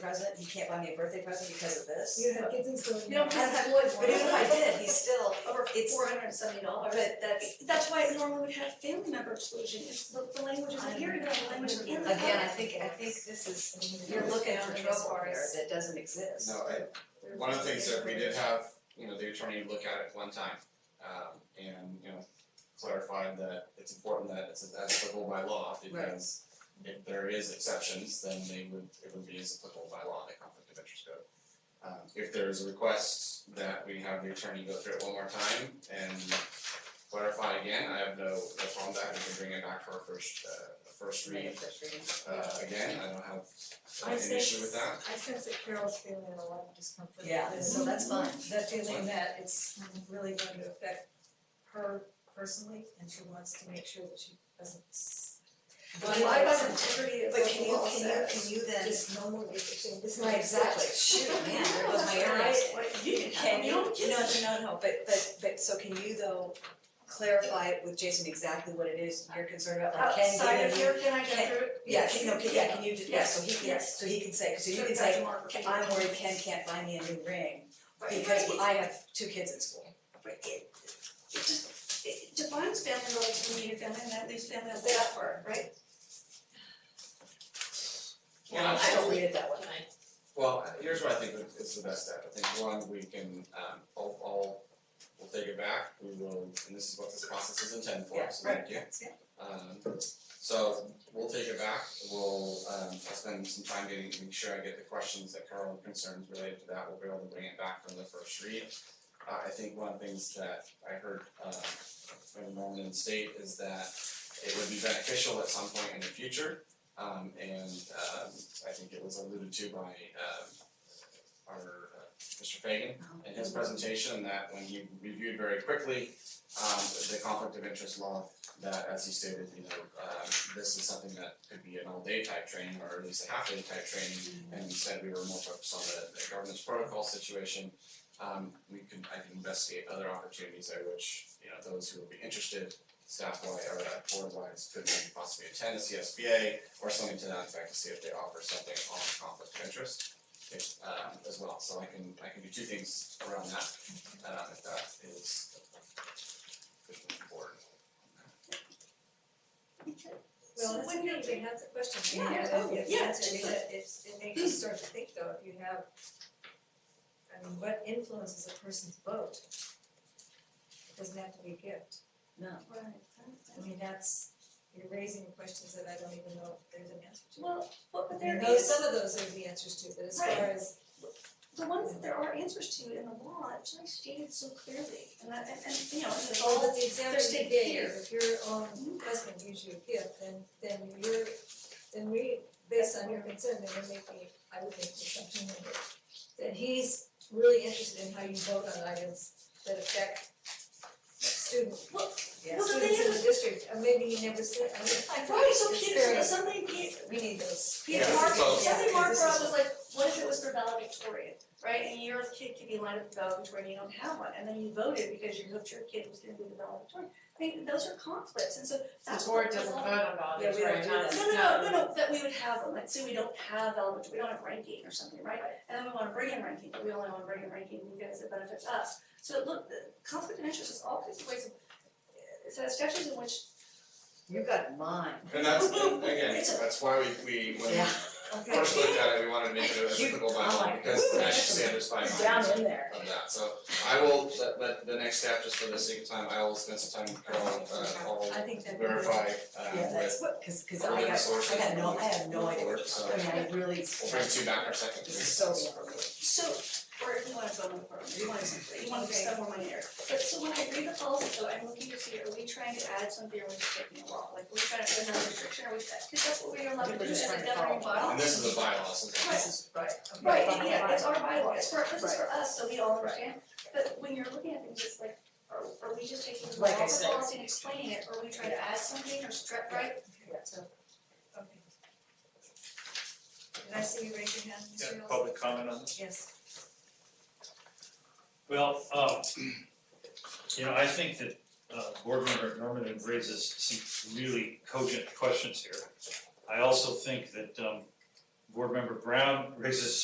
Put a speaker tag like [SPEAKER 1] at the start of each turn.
[SPEAKER 1] present, he can't buy me a birthday present because of this.
[SPEAKER 2] You have kids in school.
[SPEAKER 3] You don't have to avoid
[SPEAKER 1] But even if I
[SPEAKER 3] one.
[SPEAKER 1] did, he's still,
[SPEAKER 3] Over
[SPEAKER 1] It's-
[SPEAKER 3] four hundred and seventy dollars.
[SPEAKER 1] but that's,
[SPEAKER 3] That's why it normally would have family member exclusion, it's the, the language isn't here, you have the language in the code.
[SPEAKER 1] again, I think, I think this is, you're looking for trouble here that doesn't exist.
[SPEAKER 4] No, I, one of the things that we did have, you know, the attorney look at it one time, um, and, you know, clarified that it's important that it's as applicable by law, because if there is exceptions, then they would, it would be as applicable by law, the conflict of interest code. Um, if there is a request that we have the attorney go through it one more time and clarify again, I have no, no problem with that, we can bring it back for a first, uh, a first read, uh, again, I don't have
[SPEAKER 2] I
[SPEAKER 4] an
[SPEAKER 2] sense,
[SPEAKER 4] issue with that.
[SPEAKER 2] I sense that Carol's feeling a lot of discomfort
[SPEAKER 1] Yeah,
[SPEAKER 2] with this.
[SPEAKER 1] so that's fine.
[SPEAKER 2] That feeling that it's really going to affect her personally, and she wants to make sure that she doesn't. s-
[SPEAKER 1] But
[SPEAKER 2] violate
[SPEAKER 1] why
[SPEAKER 2] some
[SPEAKER 1] doesn't-
[SPEAKER 2] Integrity of
[SPEAKER 1] But can
[SPEAKER 2] what
[SPEAKER 1] you,
[SPEAKER 2] law
[SPEAKER 1] can you,
[SPEAKER 2] says.
[SPEAKER 1] can you then?
[SPEAKER 2] Just no more interesting, this is
[SPEAKER 1] Right, exactly, shoot, man, there goes my area.
[SPEAKER 3] you can
[SPEAKER 1] Can you, no, no, no, but but but so can you though clarify with Jason exactly what it is you're concerned about, like can you?
[SPEAKER 3] Outside of here, can I
[SPEAKER 1] can-
[SPEAKER 3] get through? it?
[SPEAKER 1] Yeah, can, no, can, yeah, can you, do- yeah,
[SPEAKER 3] Yes,
[SPEAKER 1] so he can,
[SPEAKER 3] yes.
[SPEAKER 1] so he can say, so you
[SPEAKER 3] Sure,
[SPEAKER 1] can
[SPEAKER 3] Dr.
[SPEAKER 1] say,
[SPEAKER 3] Mark,
[SPEAKER 1] "Ken,
[SPEAKER 3] repeat.
[SPEAKER 1] I'm worried Ken can't buy me a new ring
[SPEAKER 3] Right,
[SPEAKER 1] because
[SPEAKER 3] right,
[SPEAKER 1] I have two kids in school.
[SPEAKER 3] right, it, it just, it defines family relative to immediate family, and that leaves family as they are, right?
[SPEAKER 4] Yeah, I'm
[SPEAKER 1] I
[SPEAKER 4] still-
[SPEAKER 1] don't read it that way.
[SPEAKER 4] Well, here's what I think is the best step, I think one, we can, um, all, all, we'll take it back, we will, and this is what this process is intended for, so thank you.
[SPEAKER 1] yeah.
[SPEAKER 4] Um, so we'll take it back, we'll, um, I'll spend some time getting, make sure I get the questions that Carol and concerns related to that, we'll be able to bring it back from the first read. Uh, I think one of the things that I heard, uh, from Norman and State is that it would be beneficial at some point in the future. Um, and, um, I think it was alluded to by, um, our, uh, Mr. Fagan in his presentation, that when he reviewed very quickly, um, the conflict of interest law, that as he stated, you know, um, this is something that could be an all-day type training, or at least a half-day type training, and instead we were more focused on the, the governance protocol situation. Um, we can, I can investigate other opportunities there, which, you know, those who would be interested, staff wise or uh, board wise, could maybe possibly attend a CSBA or something to that effect to see if they offer something on conflict of interest if, um, as well, so I can, I can do two things around that, uh, if that is good for the board.
[SPEAKER 2] Well,
[SPEAKER 3] So
[SPEAKER 2] that's
[SPEAKER 3] when you-
[SPEAKER 2] interesting, that's a question.
[SPEAKER 3] Yeah,
[SPEAKER 2] Yeah,
[SPEAKER 3] oh,
[SPEAKER 2] it's-
[SPEAKER 3] yeah,
[SPEAKER 2] it's-
[SPEAKER 3] just
[SPEAKER 2] it's- it's- it makes you start to think though, if you have, I mean, what influences a person's vote? It doesn't have to be a gift.
[SPEAKER 1] No.
[SPEAKER 2] I mean, that's, you're raising questions that I don't even know if there's an answer to.
[SPEAKER 3] Well, but but
[SPEAKER 2] I mean,
[SPEAKER 3] there
[SPEAKER 2] those-
[SPEAKER 3] is,
[SPEAKER 2] some of those are the answers to, but as far
[SPEAKER 3] Right.
[SPEAKER 2] as,
[SPEAKER 3] the ones that there are answers to in the law, it's like stated so clearly, and that, and and, you know, and it's
[SPEAKER 2] all
[SPEAKER 3] all
[SPEAKER 2] that the example
[SPEAKER 3] state
[SPEAKER 2] you gave,
[SPEAKER 3] here.
[SPEAKER 2] if your own husband gives you a gift, then, then you're, then we, based on your concern, then we're making, I would make the assumption that, that he's really interested in how you vote on items that affect students,
[SPEAKER 1] Yes.
[SPEAKER 3] Well, the thing
[SPEAKER 2] students in the
[SPEAKER 3] is-
[SPEAKER 2] district, or maybe he never said, I mean,
[SPEAKER 3] Like, right, so
[SPEAKER 2] It's
[SPEAKER 3] Peter,
[SPEAKER 2] very-
[SPEAKER 3] something Peter,
[SPEAKER 2] we need those.
[SPEAKER 3] Peter
[SPEAKER 4] Yeah,
[SPEAKER 3] Mark,
[SPEAKER 4] it's all-
[SPEAKER 3] something Mark
[SPEAKER 1] This
[SPEAKER 3] brought
[SPEAKER 1] is-
[SPEAKER 3] was like, what if it was for valedictorian, right? And your kid could be lined up for valedictorian, you don't have one, and then you voted because you hoped your kid was gonna be the valedictorian. I mean, those are conflicts, and so that's
[SPEAKER 5] board
[SPEAKER 3] what the
[SPEAKER 5] doesn't
[SPEAKER 3] law-
[SPEAKER 5] vote on values,
[SPEAKER 1] Yeah, we don't
[SPEAKER 5] right,
[SPEAKER 1] do
[SPEAKER 5] not,
[SPEAKER 1] that.
[SPEAKER 3] No, no, no, no, no, that we would have them, like, say we don't have valedictorian, we don't have ranking or something, right? And then we wanna bring in ranking, but we only wanna bring in ranking because it benefits us. So look, the conflict of interest is all kinds of ways of, it's a statute in which
[SPEAKER 1] You got mine.
[SPEAKER 4] And that's, and again, that's why we, we, when we
[SPEAKER 1] Yeah.
[SPEAKER 4] first looked at it, we wanted to make it
[SPEAKER 1] You-
[SPEAKER 4] applicable by
[SPEAKER 1] I'm
[SPEAKER 4] law,
[SPEAKER 1] like,
[SPEAKER 4] because
[SPEAKER 1] "Ooh,
[SPEAKER 4] that
[SPEAKER 1] that's
[SPEAKER 4] should stand as by
[SPEAKER 1] Down in there.
[SPEAKER 4] of that, so I will, let, let, the next step, just for the sake of time, I will spend some time, with Carol, uh,
[SPEAKER 2] I
[SPEAKER 4] I'll
[SPEAKER 2] think that.
[SPEAKER 4] verify, um,
[SPEAKER 1] Yeah,
[SPEAKER 4] with,
[SPEAKER 1] that's what, cause, cause
[SPEAKER 4] We're
[SPEAKER 1] I
[SPEAKER 4] gonna
[SPEAKER 1] got,
[SPEAKER 4] source
[SPEAKER 1] I got
[SPEAKER 4] it
[SPEAKER 1] no,
[SPEAKER 4] from
[SPEAKER 1] I have no idea what you're
[SPEAKER 4] so-
[SPEAKER 1] talking about, I mean, I really.
[SPEAKER 4] we'll bring two back our second.
[SPEAKER 1] This is so
[SPEAKER 4] meeting.
[SPEAKER 1] wrong.
[SPEAKER 3] So, or if you wanna vote on the program, you wanna, you wanna spend more money there. But so when I read the policy, though, I'm looking to see, are we trying to add something, or are we just taking a law? Like, are we trying to put another restriction, or are we, cause that's what we are allowed to do
[SPEAKER 1] We're
[SPEAKER 3] as
[SPEAKER 1] just
[SPEAKER 3] a
[SPEAKER 1] trying to
[SPEAKER 3] governing
[SPEAKER 1] follow.
[SPEAKER 3] body.
[SPEAKER 4] And this is a bylaw, so
[SPEAKER 1] This is right. okay.
[SPEAKER 3] Right, and yeah, it's our bylaw, it's for, this is for
[SPEAKER 1] Right.
[SPEAKER 3] us, so we
[SPEAKER 1] Right.
[SPEAKER 3] all understand. But when you're looking at things, it's like, are, are we just taking the law
[SPEAKER 1] Like I
[SPEAKER 3] of the
[SPEAKER 1] said.
[SPEAKER 3] policy and explaining it, or are we trying to add something or strip, right?
[SPEAKER 2] So, okay. Did I see you raise your hand,
[SPEAKER 6] Yeah,
[SPEAKER 2] Mr. Mills?
[SPEAKER 6] public comment on this?
[SPEAKER 2] Yes.
[SPEAKER 6] Well, um, you know, I think that, uh, board member Norman raises some really cogent questions here. I also think that, um, board member Brown raises